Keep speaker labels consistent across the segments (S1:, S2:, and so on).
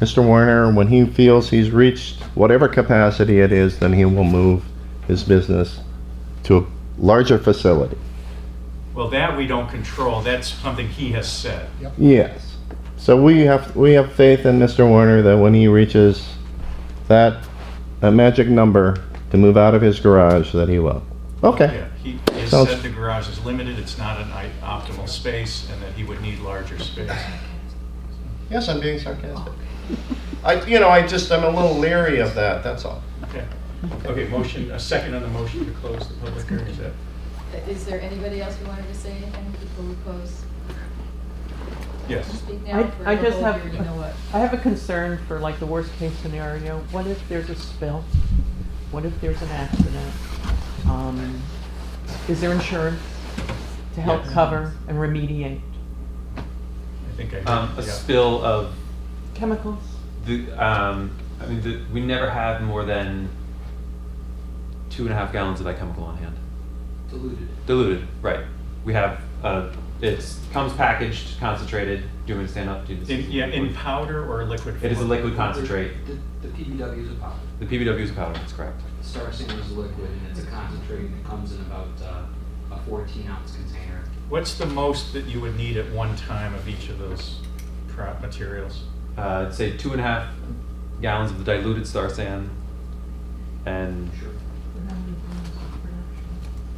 S1: Mr. Werner, when he feels he's reached whatever capacity it is, then he will move his business to a larger facility.
S2: Well, that we don't control. That's something he has said.
S1: Yes. So we have we have faith in Mr. Warner that when he reaches that that magic number to move out of his garage, that he will. Okay.
S2: Yeah, he has
S1: Sounds-
S2: said the garage is limited, it's not an i- optimal space, and that he would need larger space.
S1: Yes, I'm being sarcastic. I you know I just I'm a little leery of that. That's all.
S2: Okay, Okay. motion, a second on the motion to close the public hearing. Is that-
S3: Is there anybody else who wanted to say anything before we close?
S2: Yes,
S3: Speak now
S4: I,
S3: for
S4: I
S3: the
S4: just
S3: whole
S4: have,
S3: hearing, you know what?
S4: I have a concern for like the worst case scenario. What if there's a spill? What if there's an accident? Um, Is there insurance to help
S2: Yes.
S4: cover and remediate
S2: I think I did.
S5: Um, a
S2: Yeah.
S5: spill of
S4: chemicals?
S5: the, um, I mean, the, we never have more than two and a half gallons of that chemical on hand.
S6: diluted.
S5: Diluted, right. We have, uh, it's, comes packaged, concentrated. Do you want me to stand up? Do this?
S2: In, yeah, in powder or liquid form?
S5: It is a liquid concentrate.
S6: The, the PBW is a powder.
S5: The PBW is a powder, that's correct.
S6: Starcing is a liquid and it's a concentrate and it comes in about uh, a 14 ounce container.
S2: What's the most that you would need at one time of each of those pro- materials?
S5: Uh, I'd say two and a half gallons of the diluted star sand. And
S6: Sure.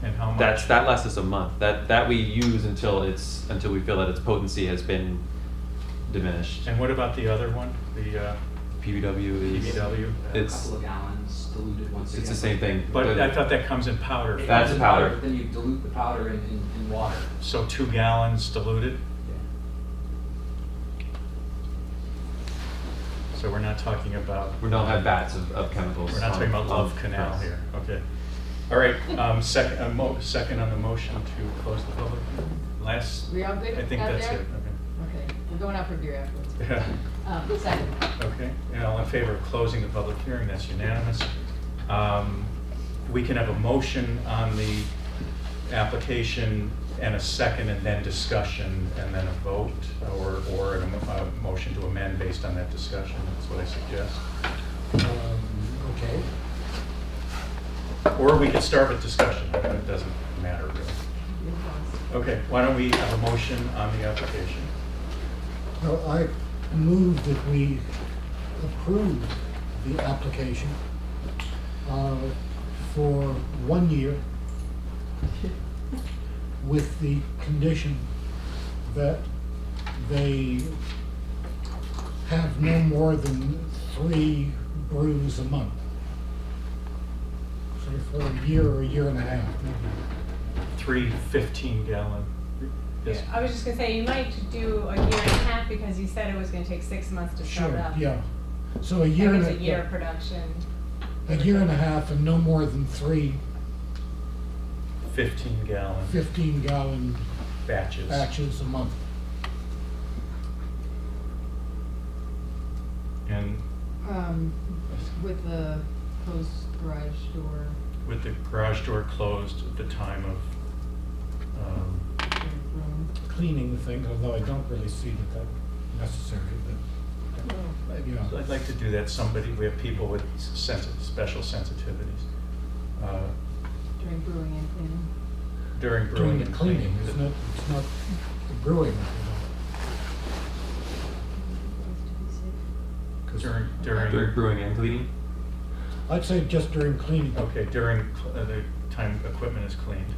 S2: And how much?
S5: that's, that lasts us a month. That, that we use until it's, until we feel that its potency has been diminished.
S2: And what about the other one, the uh,
S5: PBW is.
S2: PBW?
S6: A
S5: It's-
S6: couple of gallons diluted once again.
S5: It's the same thing.
S2: But I thought that comes in powder.
S6: It
S2: form.
S5: That's
S6: comes in
S5: powder.
S6: But then you dilute the powder in, in, in water.
S2: So two gallons diluted? So we're not talking about,
S5: We don't have vats of, of chemicals.
S2: we're not talking
S5: on-
S2: about
S5: on
S2: Love Canal
S5: press.
S2: here, okay. All right, um, second, a mo, second on the motion to close the public, hearing. last,
S3: We all good
S2: I
S3: out
S2: think that's it,
S3: there? Okay, we're going out for beer afterwards.
S2: okay.
S3: Um, second,
S2: Okay, and all in favor of closing the public hearing, that's unanimous. Um, We can have a motion on the application and a second and then discussion and then a vote or, or a mo- a motion to amend based on that discussion, that's what I suggest.
S7: Um, Okay,
S2: Or we could start with discussion, but it doesn't matter really.
S3: you're close.
S2: Okay, why don't we have a motion on the application?
S7: well, I move that we approve the application uh, for one year with the condition that they have no more than three brews a month. So for a year or a year and a half.
S2: Three 15 gallon. yes.
S8: I was just gonna say, you might do a year and a half because you said it was gonna take six months to start
S7: Sure,
S8: up.
S7: yeah. So a
S8: That
S7: year and
S8: gives
S7: a.
S8: a year of production.
S7: a year and a half and no more than three
S2: 15 gallon
S7: 15 gallon
S2: batches.
S7: batches a month.
S2: And
S3: Um, with the closed garage door,
S2: with the garage door closed at the time of, um,
S3: or room.
S7: Cleaning thing, although I don't really see that that's necessary,
S2: Oh.
S7: but, yeah.
S2: I'd like to do that, somebody, we have people with sensitive, special sensitivities uh,
S3: during brewing and cleaning.
S2: during brewing.
S7: Doing the
S2: and
S7: cleaning, it's not, it's not the brewing. you know, 'cause-
S2: During,
S5: During
S2: during,
S5: brewing and cleaning?
S7: I'd say just during cleaning.
S2: okay, during cl- uh, the time equipment is cleaned.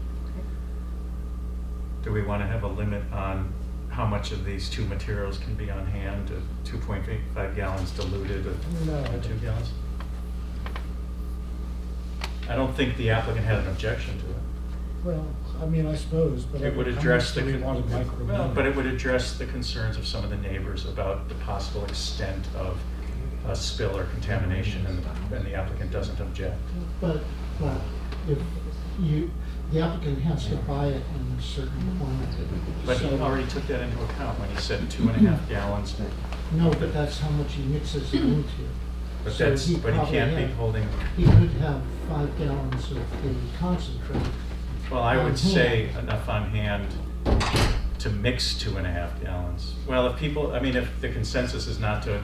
S2: Do we want to have a limit on how much of these two materials can be on hand, uh, 2.85 gallons diluted or
S7: No, I
S2: or two
S7: don't.
S2: gallons? I don't think the applicant had an objection to it.
S7: Well, I mean, I suppose, but.
S2: It would
S7: how much
S2: address the,
S7: do we
S2: con-
S7: want to micromanage?
S2: well, but it would address the concerns of some of the neighbors about the possible extent of a spill or contamination, and the- and the applicant doesn't object.
S9: But, but if you, the applicant has to buy it in a certain quantity.
S2: But he
S9: So-
S2: already took that into account when he said two and a half gallons,
S9: No, but that's how much he mixes it into.
S2: but
S9: So
S2: that's,
S9: he
S2: but he
S9: probably
S2: can't be
S9: had-
S2: holding,
S9: He could have five gallons of the concentrate.
S2: well, I would
S9: Mhm.
S2: say enough on hand to mix two and a half gallons. Well, if people, I mean, if the consensus is not to